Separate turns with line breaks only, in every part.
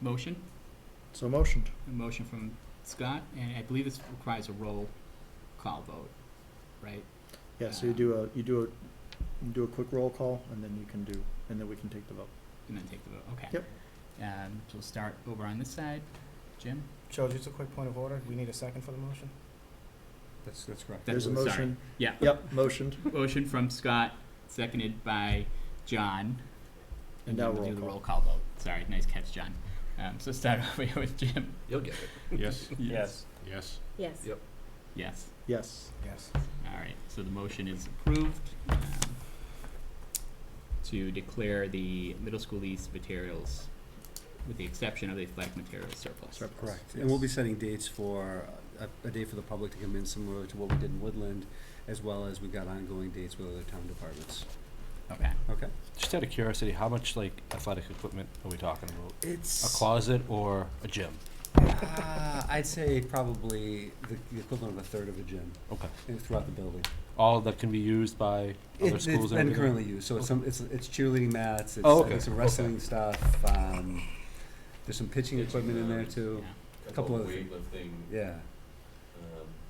motion,
So motioned.
a motion from Scott, and I believe this requires a roll call vote, right?
Yeah, so you do a, you do a, you do a quick roll call and then you can do, and then we can take the vote.
And then take the vote, okay.
Yep.
Um, so we'll start over on this side. Jim?
Joe, just a quick point of order. We need a second for the motion?
That's, that's correct.
That's-
There's a
sorry.
motion.
Yeah.
Yep, motioned.
Motion from Scott, seconded by John.
And now
then we'll
roll
do the
call.
roll call vote. Sorry, nice catch, John. Um, so start over here with Jim.
You'll get it. Yes, yes.
Yes.
Yep.
Yes.
Yes.
Yes.
All right, so the motion is approved um, to declare the middle school lease materials, with the exception of the athletic materials surplus.
Surplus.
Correct, and we'll be
Yes.
setting dates for, uh, a, a day for the public to come in similar to what we did in Woodland, as well as we've got ongoing dates with other town departments,
Okay.
okay?
Just out of curiosity, how much like athletic equipment are we talking about? A
It's,
closet or a gym?
uh, I'd say probably the, the equivalent of a third of a gym
Okay.
uh, throughout the building.
All that can be used by
It-
other
It's
schools and
been
everything?
currently used, so it's some, it's, it's cheerleading mats, it's,
Oh,
I
okay,
think some
okay.
wrestling stuff, um, there's some pitching equipment in there too,
Yeah.
a couple other things. Yeah.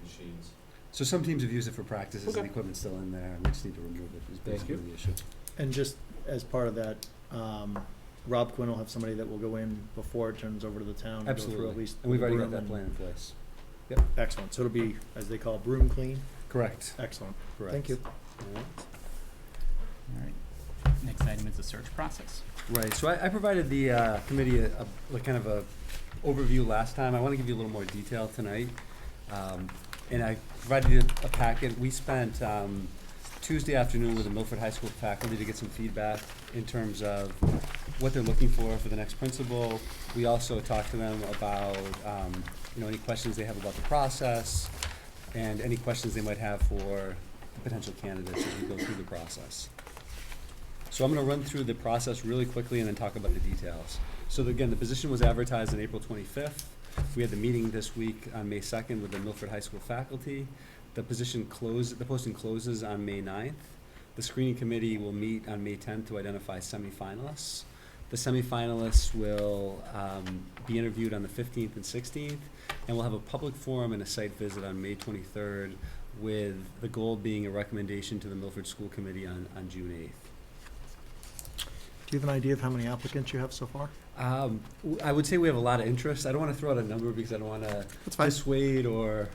machines.
So some teams have used it for practices and
Okay.
equipment's still in there, and we just need to remove it, is
Thank
basically
you.
the issue.
And just as part of that, um, Rob Quinn will have somebody that will go in before it turns over to the town. and go through
Absolutely,
at least
and we've
the
already got
room
that
and-
plan in place.
Excellent. So it'll be, as they call, broom clean.
Correct,
Excellent.
correct.
Thank you.
All right. Next item is the search process.
Right, so I, I provided the, uh, committee a, a, like, kind of a overview last time, I wanna give you a little more detail tonight. Um, and I provided you a packet, we spent, um, Tuesday afternoon with the Milford High School faculty to get some feedback in terms of what they're looking for for the next principal. We also talked to them about, um, you know, any questions they have about the process and any questions they might have for potential candidates as we go through the process. So I'm gonna run through the process really quickly and then talk about the details. So the- again, the position was advertised on April twenty-fifth. We had the meeting this week on May second with the Milford High School faculty. The position closed, the posting closes on May 9th. The screening committee will meet on May tenth to identify semifinalists. The semifinalists will, um, be interviewed on the fifteenth and sixteenth, and we'll have a public forum and a site visit on May twenty-third with the goal being a recommendation to the Milford School Committee on, on June eighth.
Do you have an idea of how many applicants you have so far?
Um, w- I would say we have a lot of interest. I don't want to throw out a number because I don't want to
That's
dissuade or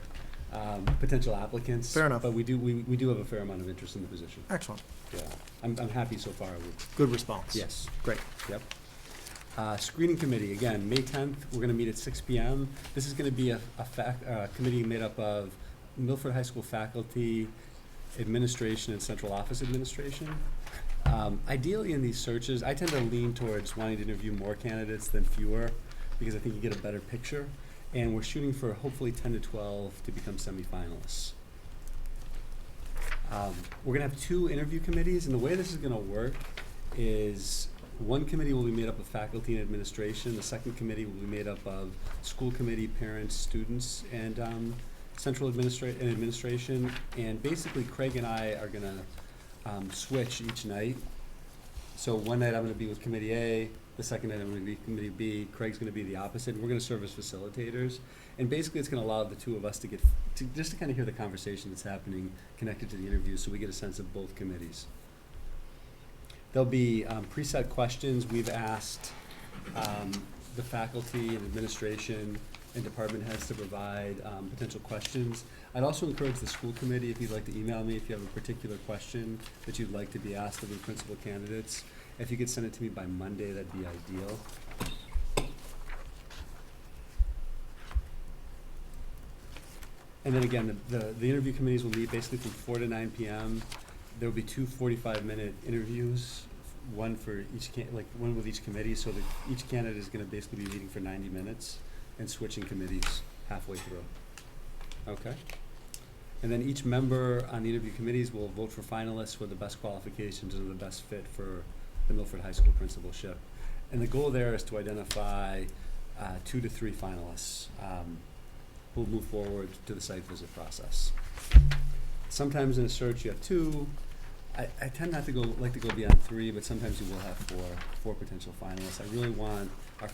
um, potential applicants.
Fair enough.
But we do, we, we do have a fair amount of interest in the position.
Excellent.
Yeah, I'm, I'm happy so far with,
Good response.
yes.
Great.
Yep. Uh, Screening committee, again, May tenth, we're gonna meet at six P M. This is gonna be a, a fac, uh, committee made up of Milford High School faculty, administration, and central office administration. Um, ideally, in these searches, I tend to lean towards wanting to interview more candidates than fewer, because I think you get a better picture. And we're shooting for hopefully ten to twelve to become semifinalists. Um, we're gonna have two interview committees, and the way this is gonna work is one committee will be made up of faculty and administration, the second committee will be made up of school committee, parents, students, and, um, central administra- and administration, and basically Craig and I are gonna, um, switch each night. So one night I'm gonna be with committee A, the second night I'm gonna be committee B, Craig's gonna be the opposite, and we're gonna serve as facilitators. And basically, it's gonna allow the two of us to get, to, just to kinda hear the conversation that's happening connected to the interview, so we get a sense of both committees. There'll be um, preset questions. We've asked um, the faculty and administration and department heads to provide um, potential questions. I'd also encourage the school committee, if you'd like to email me, if you have a particular question that you'd like to be asked of the principal candidates. If you could send it to me by Monday, that'd be ideal. And then again, the, the- the interview committees will meet basically from four to nine PM. There will be two forty-five minute interviews, one for each can, like, one with each committee, so that each candidate is gonna basically be meeting for ninety minutes and switching committees halfway through. Okay? And then each member on the interview committees will vote for finalists with the best qualifications and the best fit for the Milford High School principalship. And the goal there is to identify, uh, two to three finalists, um, who'll move forward to the site visit process. Sometimes in a search you have two, I, I tend not to go, like to go beyond three, but sometimes you will have four, four potential finalists. I really want our